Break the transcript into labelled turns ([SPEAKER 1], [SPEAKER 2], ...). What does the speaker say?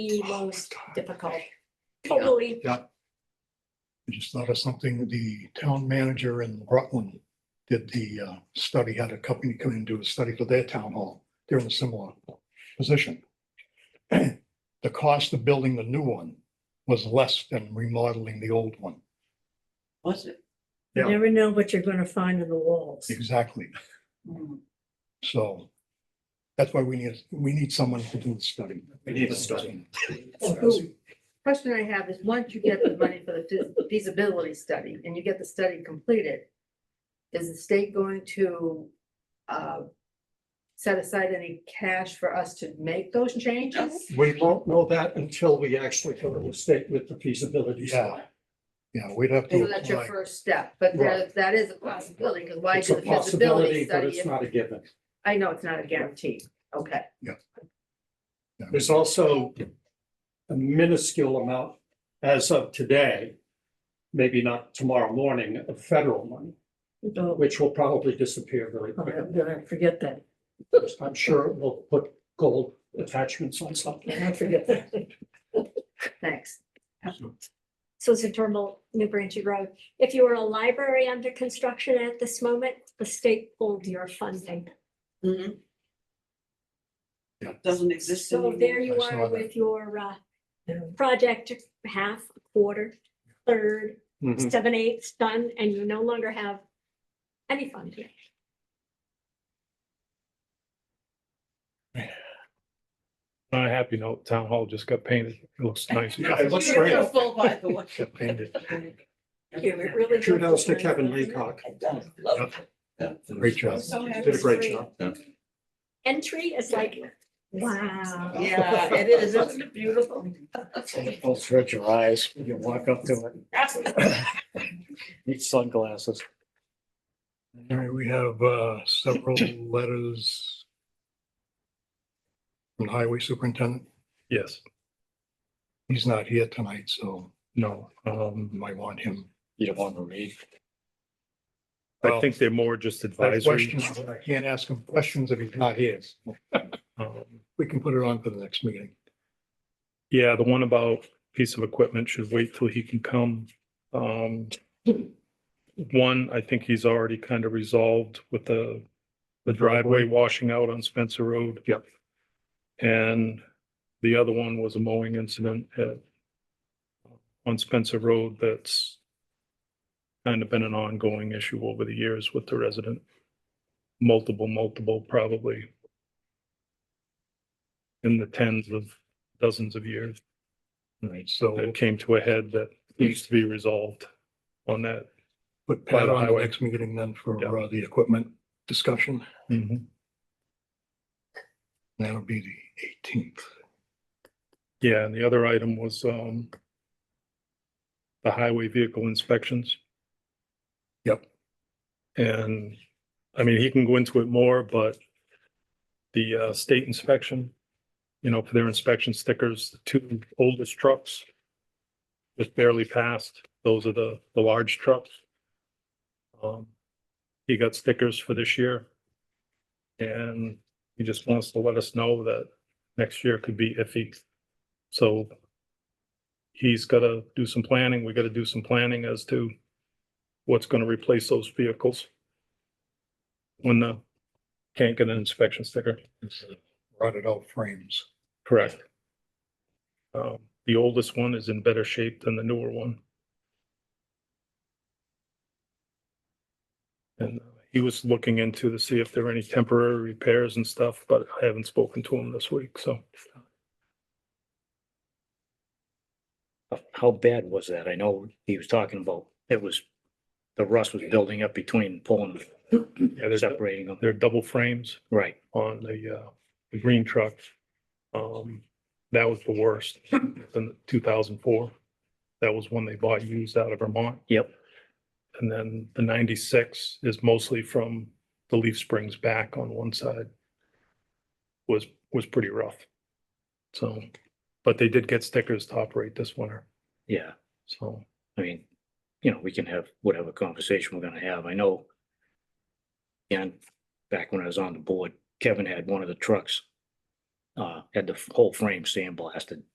[SPEAKER 1] the most difficult. Totally.
[SPEAKER 2] I just thought of something, the town manager in Rutland did the uh, study, had a company come in and do a study for their town hall. They're in a similar position. The cost of building the new one was less than remodeling the old one.
[SPEAKER 3] Was it?
[SPEAKER 2] Yeah.
[SPEAKER 4] You never know what you're gonna find in the walls.
[SPEAKER 2] Exactly. So that's why we need, we need someone to do the study.
[SPEAKER 5] We need a study.
[SPEAKER 3] Question I have is, once you get the money for the fe- feasibility study and you get the study completed, is the state going to uh, set aside any cash for us to make those changes?
[SPEAKER 5] We won't know that until we actually go to the state with the feasibility. study.
[SPEAKER 2] Yeah, we'd have to
[SPEAKER 3] So that's your
[SPEAKER 2] apply.
[SPEAKER 3] first step, but there, that is a possibility, because why
[SPEAKER 5] It's
[SPEAKER 3] do
[SPEAKER 5] a
[SPEAKER 3] the
[SPEAKER 5] possibility,
[SPEAKER 3] feasibility
[SPEAKER 5] but
[SPEAKER 3] study?
[SPEAKER 5] it's
[SPEAKER 3] if-
[SPEAKER 5] not a given.
[SPEAKER 3] I know it's not a guarantee, okay.
[SPEAKER 5] There's also a minuscule amount as of today, maybe not tomorrow morning, of federal money,
[SPEAKER 4] Oh,
[SPEAKER 5] which will probably disappear very
[SPEAKER 4] I'm
[SPEAKER 5] quickly.
[SPEAKER 4] gonna forget that.
[SPEAKER 5] I'm sure it will put gold attachments on something.
[SPEAKER 4] I forget that.
[SPEAKER 3] Thanks.
[SPEAKER 1] Susan Turnbull, New Braintree Road. If you were a library under construction at this moment, the state pulled your funding.
[SPEAKER 2] Yeah.
[SPEAKER 6] Doesn't exist
[SPEAKER 1] Mm-hmm. So
[SPEAKER 6] anymore.
[SPEAKER 1] there you
[SPEAKER 2] I saw
[SPEAKER 1] are
[SPEAKER 2] that.
[SPEAKER 1] with your uh,
[SPEAKER 4] Yeah.
[SPEAKER 1] project, half, quarter, third,
[SPEAKER 5] Mhm.
[SPEAKER 1] seven eighths done, and you no longer have any funding.
[SPEAKER 7] On a happy note, town hall just got painted. It looks nice.
[SPEAKER 5] Yeah, it looks great.
[SPEAKER 6] Beautiful, by the way.
[SPEAKER 2] Get painted.
[SPEAKER 1] It really does
[SPEAKER 5] Shoot house to
[SPEAKER 1] look nice,
[SPEAKER 5] Kevin
[SPEAKER 1] doesn't it?
[SPEAKER 5] Leacock.
[SPEAKER 6] I don't love it.
[SPEAKER 2] Great job.
[SPEAKER 6] So happy.
[SPEAKER 5] Did a great job.
[SPEAKER 1] Entry is like, wow.
[SPEAKER 6] Yeah, it is. Isn't it beautiful?
[SPEAKER 8] Don't stretch your eyes, you can walk up to it, need sunglasses.
[SPEAKER 2] All right, we have uh, several letters from the Highway Superintendent.
[SPEAKER 7] Yes,
[SPEAKER 2] He's not here tonight, so
[SPEAKER 7] no,
[SPEAKER 2] you
[SPEAKER 7] um,
[SPEAKER 2] might want him.
[SPEAKER 8] You don't want to read.
[SPEAKER 7] I
[SPEAKER 2] Well,
[SPEAKER 7] think they're more just
[SPEAKER 2] That
[SPEAKER 7] advisory.
[SPEAKER 2] question, I can't ask him questions if he's not here.
[SPEAKER 7] Um,
[SPEAKER 2] We can put it on for the next meeting.
[SPEAKER 7] Yeah, the one about piece of equipment should wait till he can come. Um, one, I think he's already kind of resolved with the, the driveway washing out on Spencer Road. Yep. And the other one was a mowing incident at, on Spencer Road that's kind of been an ongoing issue over the years with the resident. Multiple, multiple, probably in the tens of dozens of years
[SPEAKER 2] All right, so
[SPEAKER 7] that came to a head that needs to be resolved on that.
[SPEAKER 2] put
[SPEAKER 7] by
[SPEAKER 2] Pat
[SPEAKER 7] the
[SPEAKER 2] on the
[SPEAKER 7] highway.
[SPEAKER 2] next meeting then for
[SPEAKER 7] Yeah.
[SPEAKER 2] uh, the equipment discussion. That'll be the eighteenth.
[SPEAKER 7] Yeah, and the other item was, um, the highway vehicle inspections.
[SPEAKER 2] Yep.
[SPEAKER 7] And, I mean, he can go into it more, but the, uh, state inspection, you know, for their inspection stickers, the two oldest trucks just barely passed. Those are the, the large trucks. Um, he got stickers for this year. And he just wants to let us know that next year could be iffy. So he's gotta do some planning, we gotta do some planning as to what's gonna replace those vehicles when the, can't get an inspection sticker.
[SPEAKER 2] Rotted out frames.
[SPEAKER 7] Correct. Um, the oldest one is in better shape than the newer one. And he was looking into to see if there were any temporary repairs and stuff, but I haven't spoken to him this week, so.
[SPEAKER 8] How bad was that? I know he was talking about, it was, the rust was building up between pulling,
[SPEAKER 7] Yeah, there's,
[SPEAKER 8] separating them,
[SPEAKER 7] there are double frames.
[SPEAKER 8] right?
[SPEAKER 7] on the, uh, the green truck. Um, that was the worst in two thousand four. That was one they bought used out of Vermont.
[SPEAKER 8] Yep.
[SPEAKER 7] And then the ninety-six is mostly from the leaf springs back on one side. Was, was pretty rough. So, but they did get stickers to operate this winter,
[SPEAKER 8] Yeah,
[SPEAKER 7] so.
[SPEAKER 8] I mean, you know, we can have whatever conversation we're gonna have, I know. And back when I was on the board, Kevin had one of the trucks. Uh, had the whole frame sandblasted